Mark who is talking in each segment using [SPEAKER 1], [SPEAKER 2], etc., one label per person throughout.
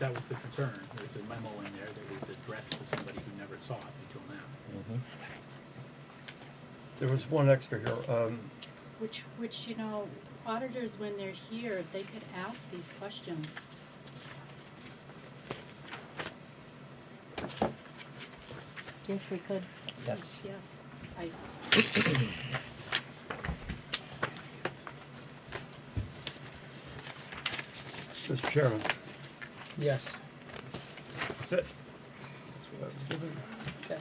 [SPEAKER 1] that was the concern, there's a memo in there that was addressed to somebody who never saw it until now.
[SPEAKER 2] Mm-hmm.
[SPEAKER 3] There was one extra here, um,
[SPEAKER 4] Which, which, you know, auditors, when they're here, they could ask these questions.
[SPEAKER 5] Yes, they could.
[SPEAKER 6] Yes.
[SPEAKER 4] Yes, I,
[SPEAKER 3] Mr. Chairman,
[SPEAKER 6] Yes.
[SPEAKER 3] that's it.
[SPEAKER 6] Okay.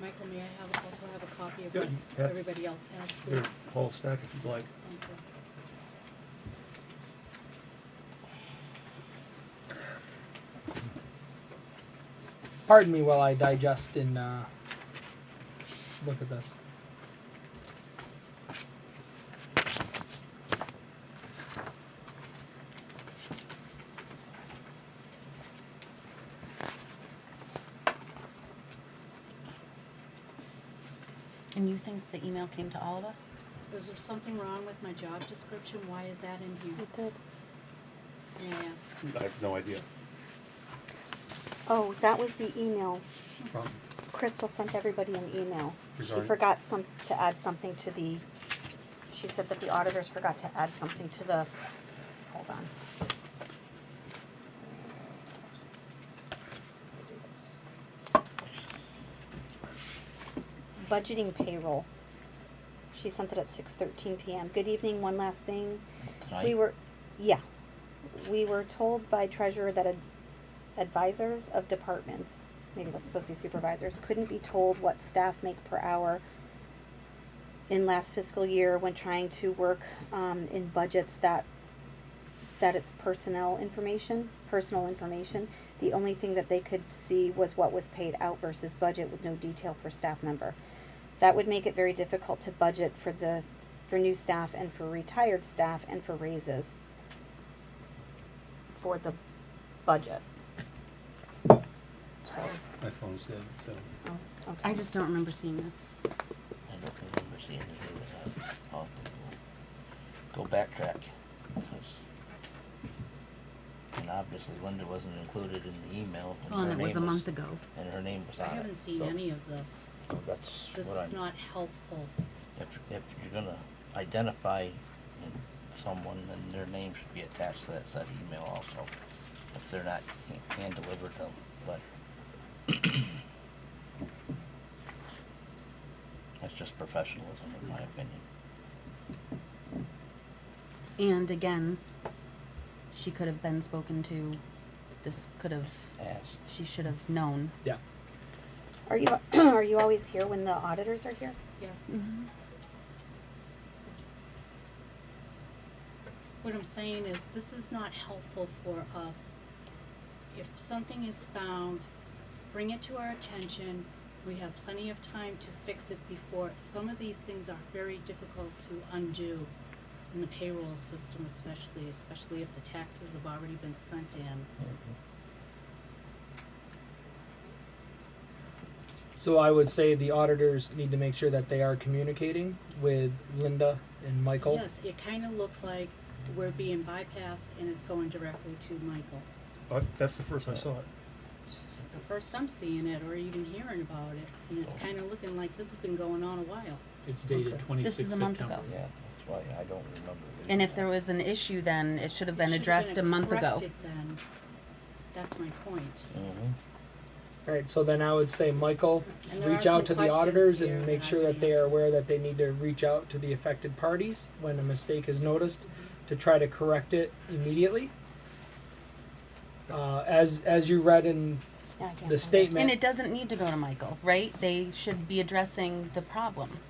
[SPEAKER 4] Michael, may I have, also have a copy of
[SPEAKER 3] Yeah,
[SPEAKER 4] what
[SPEAKER 3] you have-
[SPEAKER 4] everybody else has,
[SPEAKER 3] There's
[SPEAKER 4] please?
[SPEAKER 3] a whole stack if you'd like.
[SPEAKER 4] Thank you.
[SPEAKER 6] Pardon me while I digest and uh, look at this.
[SPEAKER 5] And you think the email came to all of us?
[SPEAKER 4] Was there something wrong with my job description? Why is that in here?
[SPEAKER 7] did.
[SPEAKER 4] May I ask?
[SPEAKER 3] I have no idea.
[SPEAKER 7] Oh, that was the email.
[SPEAKER 3] From,
[SPEAKER 7] Crystal sent everybody an email. She
[SPEAKER 3] Regarding-
[SPEAKER 7] forgot some, to add something to the, she said that the auditors forgot to add something to the, hold on. Budgeting payroll. She sent it at six thirteen PM. Good evening, one last thing. We
[SPEAKER 6] Tonight?
[SPEAKER 7] were, yeah. We were told by treasurer that ad- advisors of departments, maybe that's supposed to be supervisors, couldn't be told what staff make per hour in last fiscal year when trying to work, um, in budgets that, that it's personnel information, personal information. The only thing that they could see was what was paid out versus budget with no detail per staff member. That would make it very difficult to budget for the, for new staff and for retired staff and for raises for the budget. So,
[SPEAKER 3] my phone's dead, so.
[SPEAKER 7] oh, okay.
[SPEAKER 5] I just don't remember seeing this.
[SPEAKER 2] I don't remember seeing it either. I'll have to go, go backtrack. It's- And obviously Linda wasn't included in the email. and
[SPEAKER 5] Well,
[SPEAKER 2] her
[SPEAKER 5] Oh, and it was
[SPEAKER 2] name
[SPEAKER 5] a month ago.
[SPEAKER 2] And her name was
[SPEAKER 4] I
[SPEAKER 2] on it.
[SPEAKER 4] haven't seen
[SPEAKER 2] so-
[SPEAKER 4] any of this.
[SPEAKER 2] so That's
[SPEAKER 4] This
[SPEAKER 2] what I'm.
[SPEAKER 4] is not helpful.
[SPEAKER 2] If, if you're gonna identify someone, then their name should be attached to that said email also. If they're not ha- hand-delivered a letter. That's just professionalism, in my opinion.
[SPEAKER 5] And again, she could have been spoken to. This could have,
[SPEAKER 2] Asked.
[SPEAKER 5] she should have known.
[SPEAKER 1] Yeah,
[SPEAKER 7] Are you, are you always here when the auditors are here?
[SPEAKER 4] Yes. What I'm saying is, this is not helpful for us. If something is found, bring it to our attention. We have plenty of time to fix it before, some of these things are very difficult to undo in the payroll system especially, especially if the taxes have already been sent in.
[SPEAKER 6] So I would say the auditors need to make sure that they are communicating with Linda and Michael.
[SPEAKER 4] Yes, it kinda looks like we're being bypassed and it's going directly to Michael.
[SPEAKER 3] But Uh, that's the first I saw it.
[SPEAKER 4] It's the first I'm seeing it or even hearing about it, and it's kind of looking like this has been going on a while.
[SPEAKER 1] it's dated
[SPEAKER 6] Okay.
[SPEAKER 1] twenty-sixth
[SPEAKER 5] This is a
[SPEAKER 1] September.
[SPEAKER 5] month ago.
[SPEAKER 2] Yeah, that's why I don't remember.
[SPEAKER 5] And
[SPEAKER 2] reading
[SPEAKER 5] if
[SPEAKER 2] that.
[SPEAKER 5] there was an issue, then it should have
[SPEAKER 4] It
[SPEAKER 5] been
[SPEAKER 4] should've
[SPEAKER 5] addressed a month ago.
[SPEAKER 4] corrected then. That's my point.
[SPEAKER 2] Mhm.
[SPEAKER 6] All right, so then I would say, Michael,
[SPEAKER 4] And there
[SPEAKER 6] reach
[SPEAKER 4] are some
[SPEAKER 6] out to the
[SPEAKER 4] questions
[SPEAKER 6] auditors
[SPEAKER 4] here
[SPEAKER 6] and make
[SPEAKER 4] that I
[SPEAKER 6] sure that they
[SPEAKER 4] raised.
[SPEAKER 6] are aware that they need to reach out to the affected parties when a mistake is noticed to try to correct it immediately. Uh, as as you read in
[SPEAKER 7] Yeah, I can't find
[SPEAKER 6] the
[SPEAKER 7] it.
[SPEAKER 6] statement,
[SPEAKER 5] And it doesn't need to go to Michael, right? They should be addressing the problem.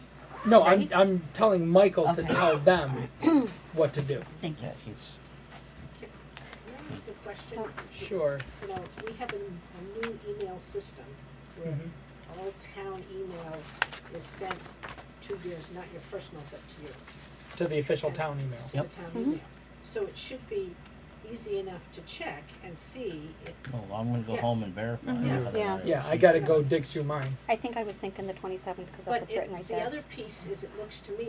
[SPEAKER 6] no,
[SPEAKER 5] right?
[SPEAKER 6] I'm I'm telling Michael to
[SPEAKER 5] Okay.
[SPEAKER 6] tell them what to do.
[SPEAKER 5] Thank you.
[SPEAKER 2] Yeah, he's,
[SPEAKER 8] Can I ask a question?
[SPEAKER 6] Sure.
[SPEAKER 8] You know, we have a, a new email system where
[SPEAKER 6] Mhm.
[SPEAKER 8] all town email is sent to your, not your personal, but to your,
[SPEAKER 6] To the official town email.
[SPEAKER 8] to the town email. So it should be easy enough to check and see if
[SPEAKER 2] Oh, I'm gonna go
[SPEAKER 8] Yeah.
[SPEAKER 2] home and verify.
[SPEAKER 6] Mhm. Yeah.
[SPEAKER 2] how that
[SPEAKER 7] Yeah.
[SPEAKER 2] is.
[SPEAKER 6] Yeah, I gotta go dig through mine.
[SPEAKER 7] I think I was thinking the twenty-seventh, because that's
[SPEAKER 8] But
[SPEAKER 7] what's
[SPEAKER 8] it,
[SPEAKER 7] written right
[SPEAKER 8] the
[SPEAKER 7] there.
[SPEAKER 8] other piece is, it looks to me